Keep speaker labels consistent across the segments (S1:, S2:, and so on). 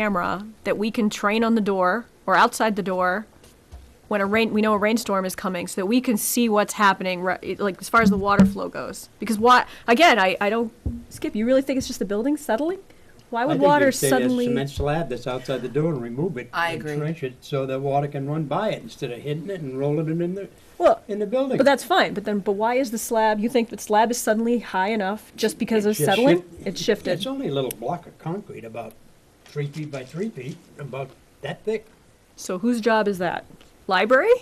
S1: camera that we can train on the door or outside the door when a rain we know a rainstorm is coming so that we can see what's happening right, like as far as the water flow goes because what again I, I don't skip you really think it's just the building settling why
S2: I
S1: would
S2: think you
S1: water
S2: should take that
S1: suddenly
S2: Cement slab that's outside the door and remove it.
S3: I
S2: and
S3: agree.
S2: Trench it so that water can run by it instead of hitting it and rolling it in the,
S1: well
S2: in the building.
S1: but that's fine but then but why is the slab you think the slab is suddenly high enough just because
S2: It
S1: of
S2: just
S1: settling
S2: shift-
S1: it shifted
S2: It's only a little block of concrete, about three feet by three feet, about that thick.
S1: so whose job is that library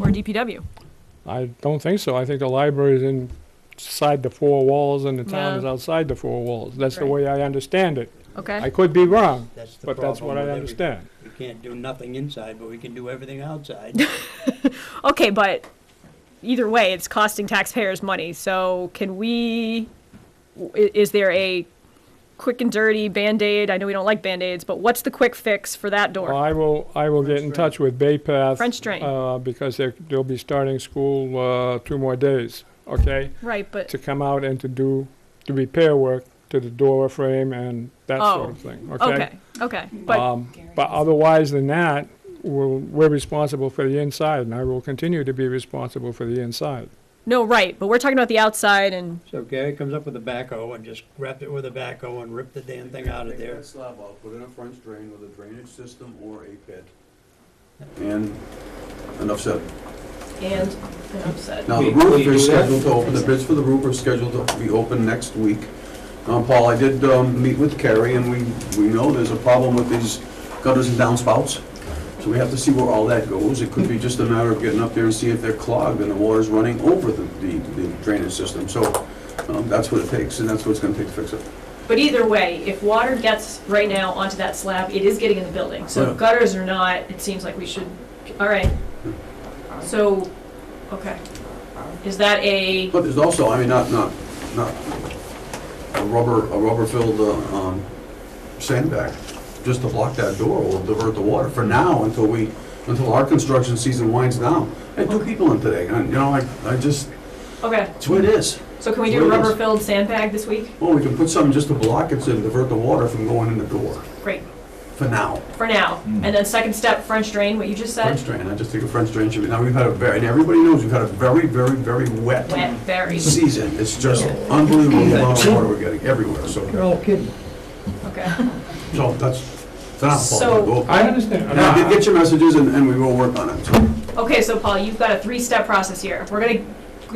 S1: or DPW
S4: I don't think so. I think the library is inside the four walls and the town
S1: Yeah.
S4: is outside the four walls. That's the
S1: Right.
S4: way I understand it.
S1: okay
S4: I could be wrong,
S2: That's the
S4: but
S2: problem.
S4: that's what I
S2: with every-
S4: understand.
S2: We can't do nothing inside, but we can do everything outside.
S1: Okay, but either way, it's costing taxpayers money. So can we? i- Is there a quick and dirty band aid? I know we don't like band aids, but what's the quick fix for that door?
S4: Well, I will, I will get in touch with Bay Path.
S1: French drain.
S4: Uh, because they're, they'll be starting school, uh, two more days, okay?
S1: right, but
S4: To come out and to do the repair work to the door frame and that sort of thing, okay?
S1: Oh, okay, okay, but
S4: Um, But otherwise than that, we're, we're responsible for the inside, and I will continue to be responsible for the inside.
S1: no, right, but we're talking about the outside and
S2: So Gary comes up with a backhoe and just grabbed it with a backhoe and ripped the damn thing out of
S5: Take
S2: there.
S5: that slab out, put in a French drain with a drainage system or a pit. And enough said.
S1: and an upset.
S5: Now, the
S6: We- we
S5: roof
S6: do
S5: is
S6: that?
S5: scheduled to open, the bids for the roof are scheduled to be open next week. Now, Paul, I did um, meet with Carrie, and we, we know there's a problem with these gutters and downspouts. So we have to see where all that goes. It could be just a matter of getting up there and see if they're clogged and the water's running over the, the the drainage system. So um, that's what it takes, and that's what it's gonna take to fix it.
S1: But either way, if water gets right now onto that slab, it is getting in the building. So
S5: Yeah.
S1: gutters or not, it seems like we should. All right. So, okay, is that a?
S5: But there's also, I mean, not, not, not a rubber, a rubber-filled uh, um, sandbag, just to block that door will divert the water for now until we, until our construction season winds down. I had two people in today, and, you know, I, I just,
S1: Okay,
S5: it's what it is.
S1: so can we do a
S5: Where is-
S1: rubber-filled sandbag this week?
S5: Well, we can put something just to block it and divert the water from going in the door,
S1: Great,
S5: for now.
S1: for now. And then second step, French drain, what you just
S5: French
S1: said?
S5: drain, I just think a French drain should be, now we've had a very, and everybody knows, we've had a very, very, very wet
S1: Wet, buried,
S5: season. It's just unbelievable the amount of water we're getting everywhere, so.
S2: You're all kidding.
S1: okay.
S5: So that's, it's not a
S1: So-
S5: fault. We'll-
S4: I understand.
S5: And I did get your messages and, and we will work on it. So
S1: Okay, so Paul, you've got a three-step process here. We're gonna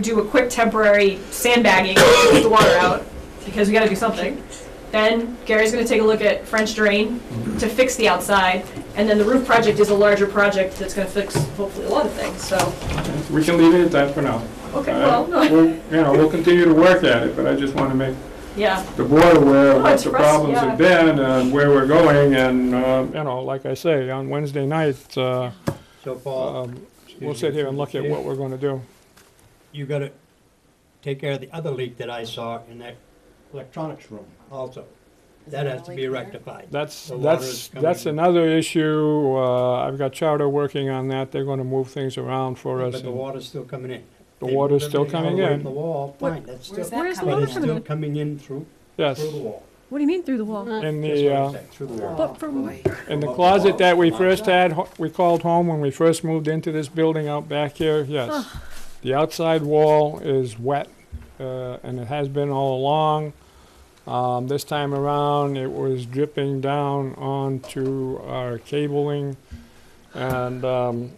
S1: do a quick temporary sandbagging, to get the water out, because we gotta do something. Then Gary's gonna take a look at French drain to fix the outside, and then the roof project is a larger project that's gonna fix hopefully a lot of things, so,
S4: We can leave it at that for now.
S1: okay,
S4: Uh,
S1: well, no,
S4: we'll- You know, we'll continue to work at it, but I just want to make
S1: yeah.
S4: the board aware
S1: No,
S4: of what
S1: Oh, it's
S4: the
S1: for us,
S4: problems
S1: yeah.
S4: have been and where we're going, and, uh, you know, like I say, on Wednesday night, uh,
S2: So Paul,
S4: um,
S2: excuse
S4: we'll
S2: me,
S4: sit here and look at
S2: you-
S4: what we're going to do.
S2: You gotta take care of the other leak that I saw in that electronics room also. That has to be rectified.
S4: That's,
S2: The water
S4: that's,
S2: is
S4: that's
S2: coming.
S4: another issue. Uh, I've got Charter working on that. They're going to move things around for us.
S2: But the
S4: and-
S2: water's still coming in.
S4: The
S2: They
S4: water's
S2: moved
S4: still
S2: everything all
S4: coming
S2: the way
S4: in.
S2: from The wall, fine, that's
S3: Where's
S2: still,
S3: that
S1: Where's the
S3: coming
S2: but
S1: water
S2: it's
S3: from?
S2: still coming in through,
S4: Yes,
S2: through the wall.
S1: What do you mean through the wall?
S4: in
S2: That's
S4: the,
S2: what I
S4: uh,
S2: said, Through the wall.
S1: But from,
S4: in the closet that we first had, ho- we called home when we first moved into this building out back here, yes. The outside wall is wet, uh, and it has been all along. Um, this time around, it was dripping down onto our cabling and, um,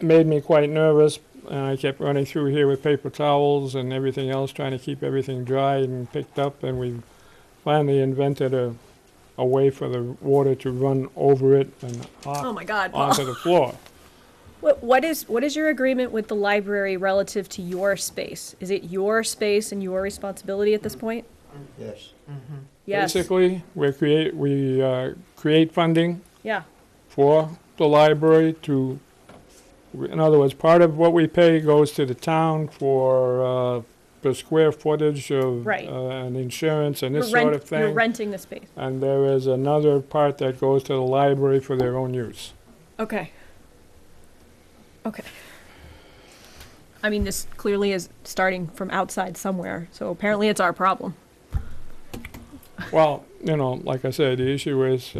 S4: it made me quite nervous. And I kept running through here with paper towels and everything else, trying to keep everything dry and picked up. And we finally invented a, a way for the water to run over it and
S1: oh
S4: off,
S1: my God, Paul.
S4: onto the floor.
S1: What, what is, what is your agreement with the library relative to your space? Is it your space and your responsibility at this point?
S2: Yes.
S1: Mm-hmm. Yes,
S4: Basically, we create, we uh, create funding
S1: yeah,
S4: for the library to, in other words, part of what we pay goes to the town for uh, the square footage of
S1: Right.
S4: uh, and insurance and
S1: You're
S4: this sort
S1: rent-
S4: of thing.
S1: You're renting the space.
S4: And there is another part that goes to the library for their own use.
S1: Okay. Okay. I mean, this clearly is starting from outside somewhere, so apparently it's our problem.
S4: Well, you know, like I said, the issue is